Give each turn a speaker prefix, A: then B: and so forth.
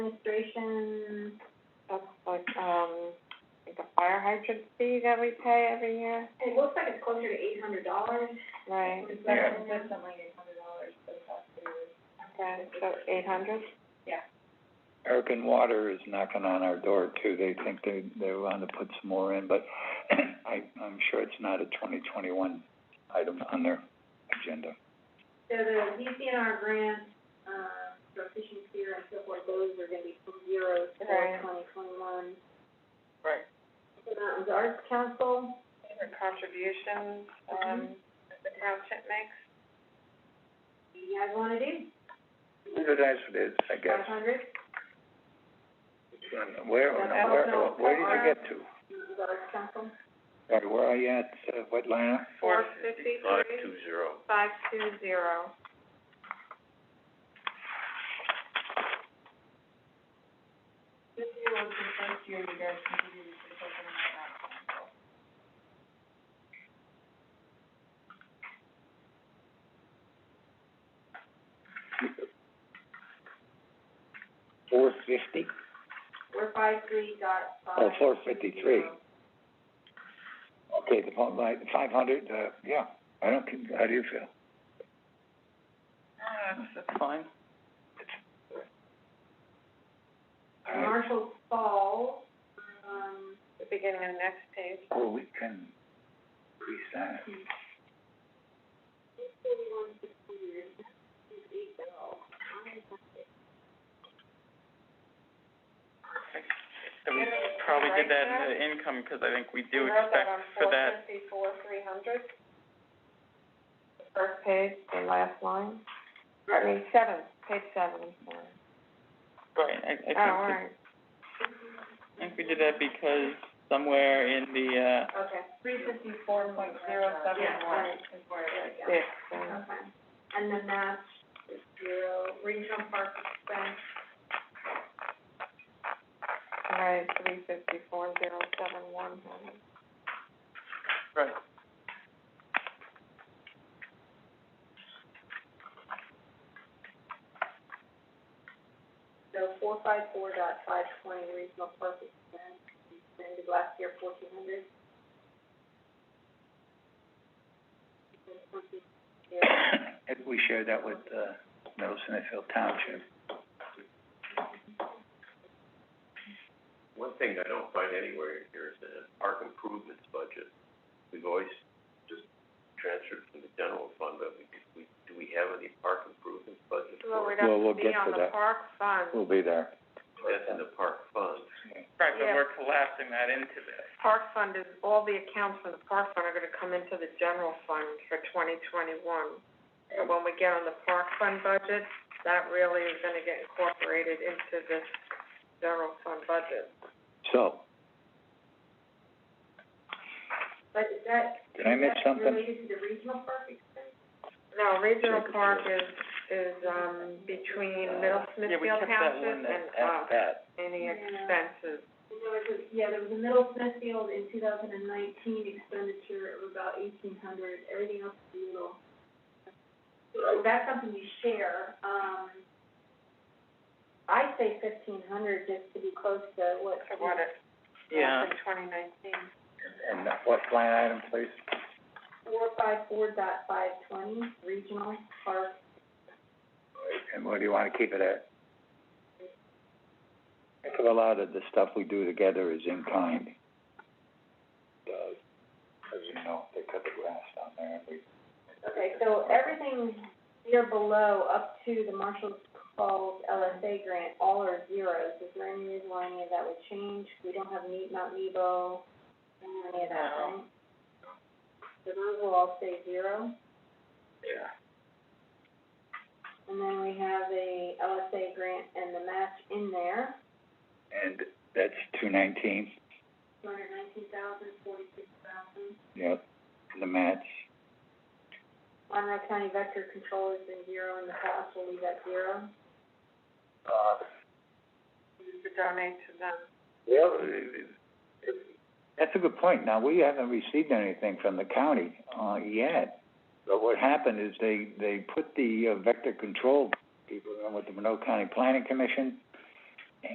A: administration,
B: That's like, um, like the fire hydrant fee that we pay every year,
A: it looks like it's closer to eight hundred dollars.
B: right?
C: Yeah.
A: Something like eight hundred dollars for the cost of your-
B: Okay, so eight hundred?
C: American Water is knocking on our door too, they think they, they want to put some more in, but I, I'm sure it's not a twenty twenty-one item on their agenda.
A: So the DCNR grant, um, for fishing pier and so forth, those are gonna be from zero to
B: Right.
A: twenty twenty-one.
B: Right.
A: The Mountains Arts Council,
B: For contributions,
A: um,
B: the township makes?
A: do you guys wanna do?
C: it is, I
A: Five hundred,
C: Where,
A: That also-
C: did
A: Mountains
C: you
A: Arts Council.
C: get to? Sorry, where are you at, uh, what line?
B: Four fifty-three. Five two zero. Five two zero.
A: This year was the first year you guys continued to take them out.
C: Four fifty?
A: We're five three dot five.
C: Oh, 453. Okay, the phone line, five hundred, uh, yeah, I don't, con- how do you feel?
B: that's fine.
C: All right,
A: Marshall Falls, um,
B: The beginning of next page.
C: Well, we can increase that.
A: forty-one sixty years, is eight dollars.
D: And we probably did that uh, in the income, because I think we do expect for that.
B: four three hundred. First page, the last line, I mean, seven, page seven, sorry.
D: Right, I, I think,
B: Oh, all
D: we-
B: right,
D: I think we did that because somewhere in the, uh,
A: Okay.
B: Three fifty-four point zero
A: Yeah, right, is where it is, yeah.
B: Six, uh,
A: Okay, and the match is zero, regional park expense,
B: all right, three fifty-four zero seven one hundred.
D: right,
A: so four five four dot five twenty, regional park expense, expended last year fourteen hundred.
C: If we share that with, uh, Middle Smithfield Township.
E: One thing I don't find anywhere in here is the park improvements budget. We've always just transferred from the general fund, but we, we, do we have any park improvements budget
B: Well,
E: for,
B: we'd have
C: Well, we'll
B: to be
C: get
B: on
C: to
B: the
C: that.
B: park fund,
C: We'll be there.
E: that's in the park fund?
D: right, but
B: Yeah.
D: we're collapsing that into this.
B: park fund is, all the accounts for the park fund are gonna come into the general fund for twenty twenty-one. So when we get on the park fund budget, that really is gonna get incorporated into this general fund budget.
C: So,
A: But is that, is
C: Did I miss
A: that
C: something?
A: related to the regional park expense?
B: No, regional park is, is, um, between Middle
D: Yeah, we
B: Smithfield
D: kept that one
B: Township
D: that,
B: and,
D: at
B: uh,
D: that.
B: any
A: Yeah.
B: expenses.
A: And There was a, yeah, there was a Middle Smithfield in two thousand and nineteen expenditure of about eighteen hundred, everything else is little. So that's something you share, um, I say fifteen hundred just to be close to what.
B: So what it,
D: Yeah.
B: in twenty nineteen.
C: and what line item, please?
A: Four five four dot five twenty, regional park,
C: And what do you wanna keep it at? Think of a lot of the stuff we do together is in kind. Uh, as you know, they cut the grass down there and we.
A: okay, so everything here below up to the Marshall Falls LSA grant, all are zeros, is there any reason why any of that would change? We don't have Meet Mount Nebo, any of that,
D: No.
A: right? So those will all stay zero,
D: Yeah.
A: and then we have the LSA grant and the match in there, e-
C: And that's two nineteen,
A: two hundred nineteen thousand, forty-six thousand.
C: yep, the match.
A: Monroe County Vector Control has been zero in the past, we'll leave that zero.
C: Uh,
B: To donate to them.
C: Yeah, that's a good point. Now, we haven't received anything from the county, uh, yet. But what happened is they, they put the uh, vector control people in with the Monroe County Planning Commission,